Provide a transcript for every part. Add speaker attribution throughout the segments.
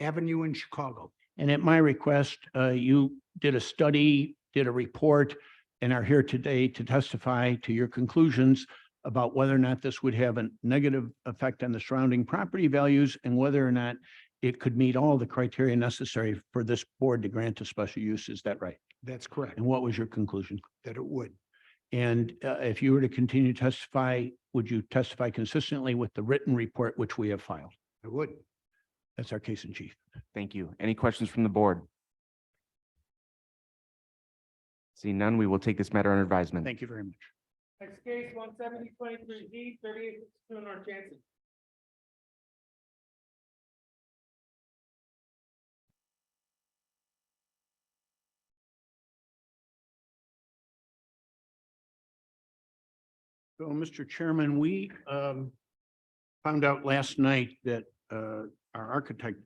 Speaker 1: Avenue in Chicago.
Speaker 2: And at my request, uh, you did a study, did a report, and are here today to testify to your conclusions about whether or not this would have a negative effect on the surrounding property values and whether or not it could meet all the criteria necessary for this board to grant a special use. Is that right?
Speaker 1: That's correct,
Speaker 2: And what was your conclusion?
Speaker 1: that it would.
Speaker 2: And uh, if you were to continue to testify, would you testify consistently with the written report which we have filed?
Speaker 1: It would.
Speaker 2: That's our case in chief.
Speaker 3: Thank you. Any questions from the board? Seeing none, we will take this matter under advisement.
Speaker 2: Thank you very much.
Speaker 4: Next case, one seventy twenty-three Z, thirty-eight sixty-two North Jansen.
Speaker 2: So, Mr. Chairman, we um, found out last night that uh, our architect,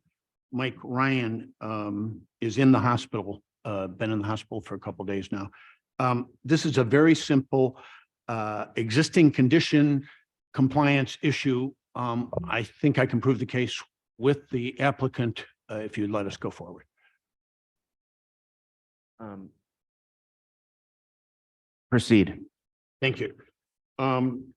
Speaker 2: Mike Ryan, um, is in the hospital, uh, been in the hospital for a couple days now. Um, This is a very simple uh, existing condition compliance issue. Um, I think I can prove the case with the applicant uh, if you let us go forward.
Speaker 3: Um, Proceed.
Speaker 2: Thank you. Um,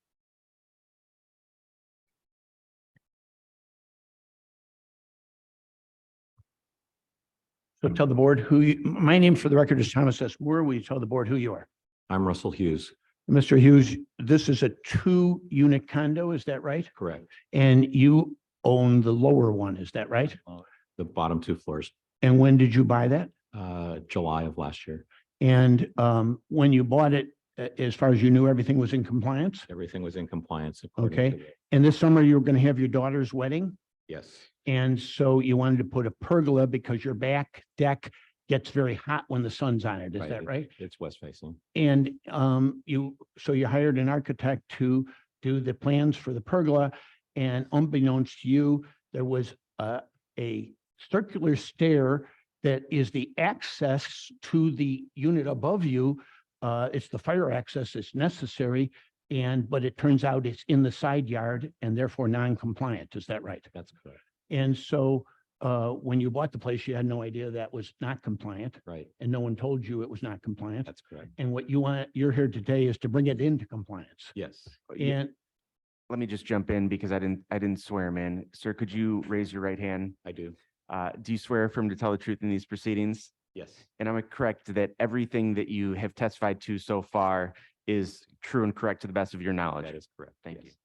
Speaker 2: So tell the board who, you- my name for the record is Thomas S. Moore. Will you tell the board who you are?
Speaker 5: I'm Russell Hughes,
Speaker 2: Mr. Hughes, this is a two-unit condo, is that right?
Speaker 5: correct.
Speaker 2: And you own the lower one, is that right?
Speaker 5: The bottom two floors,
Speaker 2: And when did you buy that?
Speaker 5: uh, July of last year,
Speaker 2: And um, when you bought it, a- as far as you knew, everything was in compliance?
Speaker 5: everything was in compliance. according
Speaker 2: Okay.
Speaker 5: to the-
Speaker 2: And this summer, you were going to have your daughter's wedding?
Speaker 5: Yes,
Speaker 2: And so you wanted to put a pergola because your back deck gets very hot when the sun's on it, is
Speaker 5: Right,
Speaker 2: that right?
Speaker 5: it's west facing,
Speaker 2: And um, you, so you hired an architect to do the plans for the pergola. And unbeknownst to you, there was a, a circular stair that is the access to the unit above you. Uh, it's the fire access that's necessary. And, but it turns out it's in the side yard and therefore non-compliant. Is that right?
Speaker 5: that's correct,
Speaker 2: And so uh, when you bought the place, you had no idea that was not compliant
Speaker 5: right,
Speaker 2: and no one told you it was not compliant.
Speaker 5: that's correct,
Speaker 2: And what you want, you're here today is to bring it into compliance.
Speaker 5: yes.
Speaker 3: You-
Speaker 2: And
Speaker 3: Let me just jump in because I didn't, I didn't swear him in. Sir, could you raise your right hand?
Speaker 5: I do,
Speaker 3: Uh, Do you swear affirm to tell the truth in these proceedings?
Speaker 5: yes,
Speaker 3: And am I correct that everything that you have testified to so far is true and correct to the best of your knowledge?
Speaker 5: that is correct.
Speaker 3: Thank you.
Speaker 5: yes.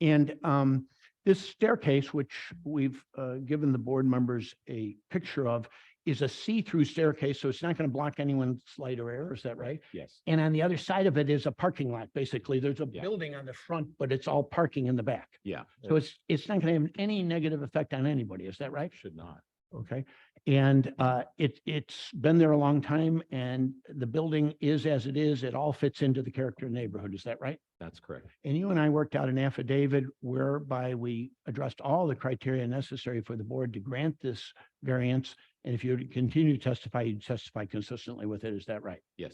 Speaker 2: And um, this staircase, which we've uh, given the board members a picture of, is a see-through staircase, so it's not going to block anyone's light or air, is that right?
Speaker 5: Yes,
Speaker 2: And on the other side of it is a parking lot, basically. There's a
Speaker 5: Yeah.
Speaker 2: building on the front, but it's all parking in the back.
Speaker 5: yeah. Uh,
Speaker 2: So
Speaker 5: it
Speaker 2: it's, it's not going to have any negative effect on anybody, is that right?
Speaker 5: Should not,
Speaker 2: Okay, and uh, it, it's been there a long time and the building is as it is. It all fits into the character of the neighborhood. Is that right?
Speaker 5: that's correct,
Speaker 2: And you and I worked out an affidavit whereby we addressed all the criteria necessary for the board to grant this variance. And if you were to continue to testify, you testify consistently with it. Is that right?
Speaker 5: yes,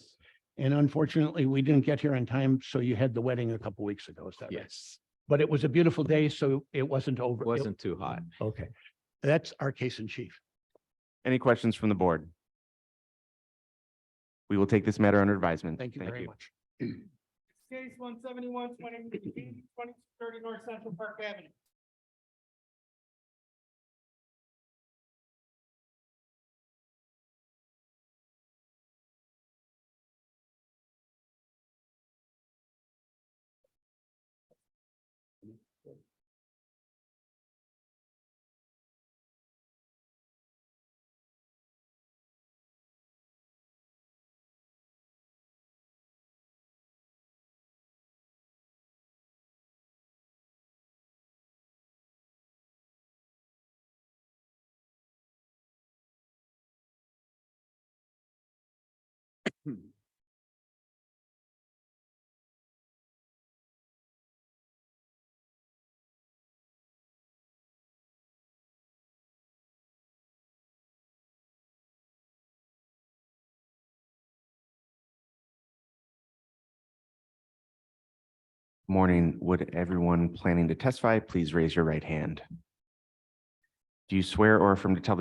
Speaker 2: And unfortunately, we didn't get here on time, so you had the wedding a couple weeks ago. Is that right?
Speaker 5: yes,
Speaker 2: But it was a beautiful day, so it wasn't over. it-
Speaker 5: wasn't too hot.
Speaker 2: Okay, that's our case in chief.
Speaker 3: Any questions from the board? We will take this matter under advisement.
Speaker 2: Thank you very much.
Speaker 4: Next case, one seventy-one twenty-three Z, twenty thirty North Central Park Avenue.
Speaker 3: Morning. Would everyone planning to testify please raise your right hand? Do you swear or affirm to tell the